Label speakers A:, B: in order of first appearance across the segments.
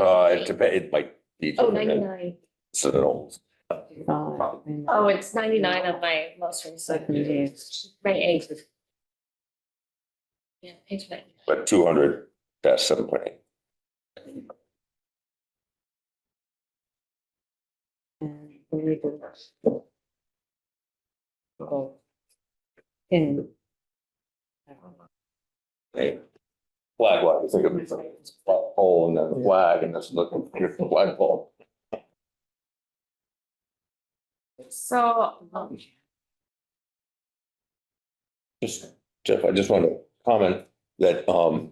A: Uh, It depends, it might be.
B: Oh,
A: different,
B: ninety-nine.
A: So,
B: Oh, it's ninety-nine on my most recent, May eighth. Yeah, page nine.
A: but two hundred, that's seven point eight.
C: Oh.
A: Hey, flag lot, it's like a it's like a pole and then a flag and that's looking, here's the flag pole.
B: So, um,
A: Just, Jeff, I just want to comment that, um,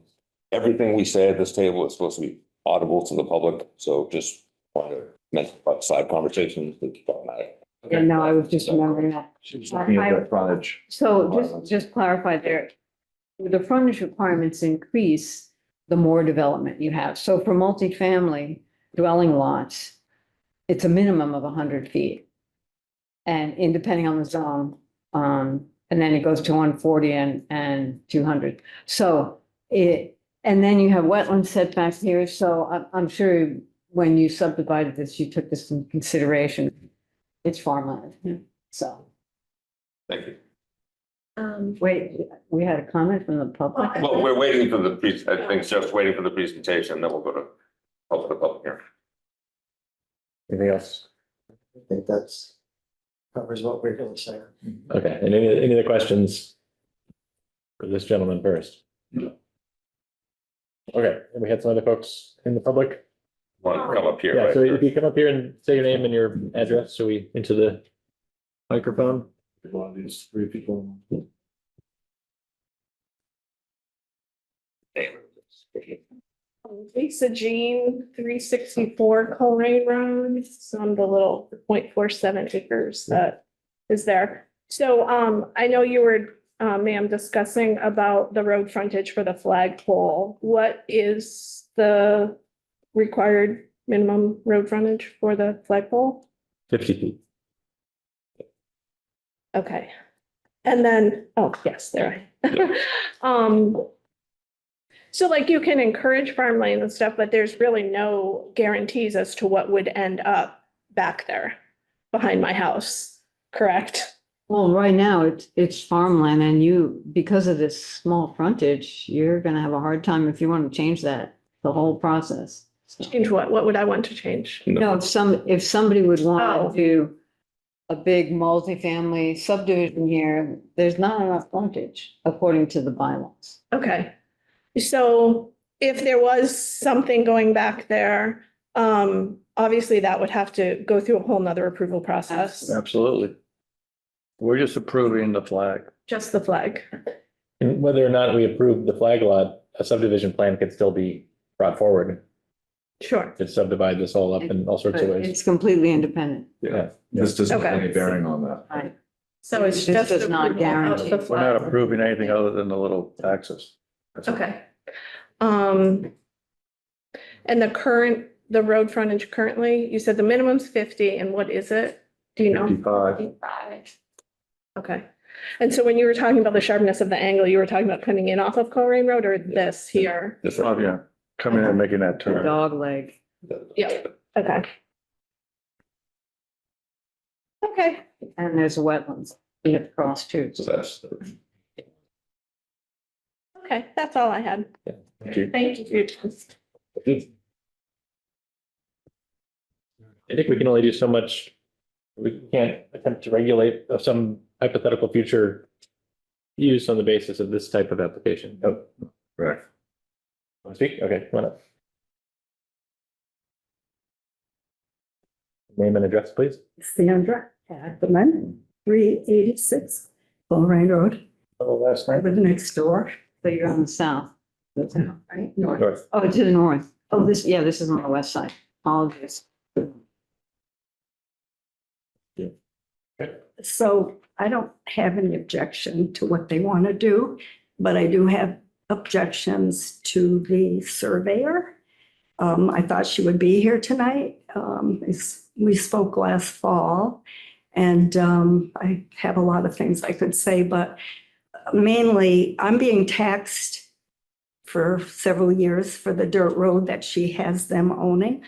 A: everything we say at this table is supposed to be audible to the public, so just want to mention about side conversations that don't matter.
C: Yeah, no, I was just remembering that.
D: She's
C: I-
D: looking at
C: I-
D: that frontage.
C: So just, just clarify there, the frontage requirements increase the more development you have. So for multifamily dwelling lots, it's a minimum of hundred feet. And in depending on the zone, um, and then it goes to one forty and, and two hundred. So it, and then you have wetland setbacks here, so I'm, I'm sure when you subdivided this, you took this into consideration. It's farmland, so.
A: Thank you.
B: um,
C: Wait, we had a comment from the public?
A: Well, we're waiting for the, pre- I think Jeff's waiting for the presentation, then we'll go to, open the public hearing.
D: Anything else?
E: I think that's covers what we're gonna say.
F: Okay, and any, any other questions? For this gentleman first? Okay, and we had some other folks in the public.
A: Want to come up here,
F: Oh, Yeah,
A: right?
F: so if you come up here and say your name and your address, so we, into the microphone.
D: One of these three people.
G: Um, Lisa Jean, three sixty-four Colrain Road, it's on the little 0.47 acres that is there. So, um, I know you were, uh, ma'am, discussing about the road frontage for the flagpole. What is the required minimum road frontage for the flagpole?
F: Fifty feet.
G: Okay. And then, oh, yes, there. I Um, so like you can encourage farmland and stuff, but there's really no guarantees as to what would end up back there behind my house, correct?
C: Well, right now, it's, it's farmland and you, because of this small frontage, you're gonna have a hard time if you want to change that, the whole process. So-
G: Change what? What would I want to change?
C: No, if some, if somebody would
G: Oh.
C: want to do a big multifamily subdivision here, there's not enough frontage according to the bylaws.
G: Okay. So if there was something going back there, um, obviously that would have to go through a whole nother approval process,
D: Absolutely. We're just approving the flag.
G: just the flag.
F: And whether or not we approve the flag lot, a subdivision plan could still be brought forward.
G: Sure.
F: Could subdivide this all up in all sorts
C: But
F: of ways.
C: it's completely independent.
F: Yeah.
D: This doesn't have
G: Okay.
D: any bearing on that.
C: Right.
G: So it's
C: This
G: just.
C: does not
G: approval of
C: guarantee.
G: the
D: We're not
G: flag.
D: approving anything other than the little taxes. That's all.
G: Okay. Um, and the current, the road frontage currently, you said the minimum's fifty and what is it? Do you know?
D: Fifty-five.
B: five.
G: Okay. And so when you were talking about the sharpness of the angle, you were talking about coming in off of Colrain Road or this here?
A: Just
D: Oh,
A: right here.
D: yeah. Coming in and making that turn.
C: Dog leg.
G: Yeah. Okay. Okay,
C: And there's wetlands you have to cross too.
A: So that's,
G: okay, that's all I had.
F: Thank you.
G: Thank you. for your time.
F: I think we can only do so much. We can't attempt to regulate of some hypothetical future use on the basis of this type of application. Oh,
D: Right.
F: want to speak? Okay, come on up. Name and address, please.
H: Sandra Hagman, three eighty-six Bullring Road.
F: last
H: I live next door.
C: So you're on the south.
H: That's how, right? North.
F: North.
C: Oh, to the north. Oh, this, yeah, this is on the west side. Apologies.
H: So I don't have any objection to what they want to do, but I do have objections to the surveyor. Um, I thought she would be here tonight. Um, it's- we spoke last fall. And, um, I have a lot of things I could say, but mainly I'm being taxed for several years for the dirt road that she has them owning.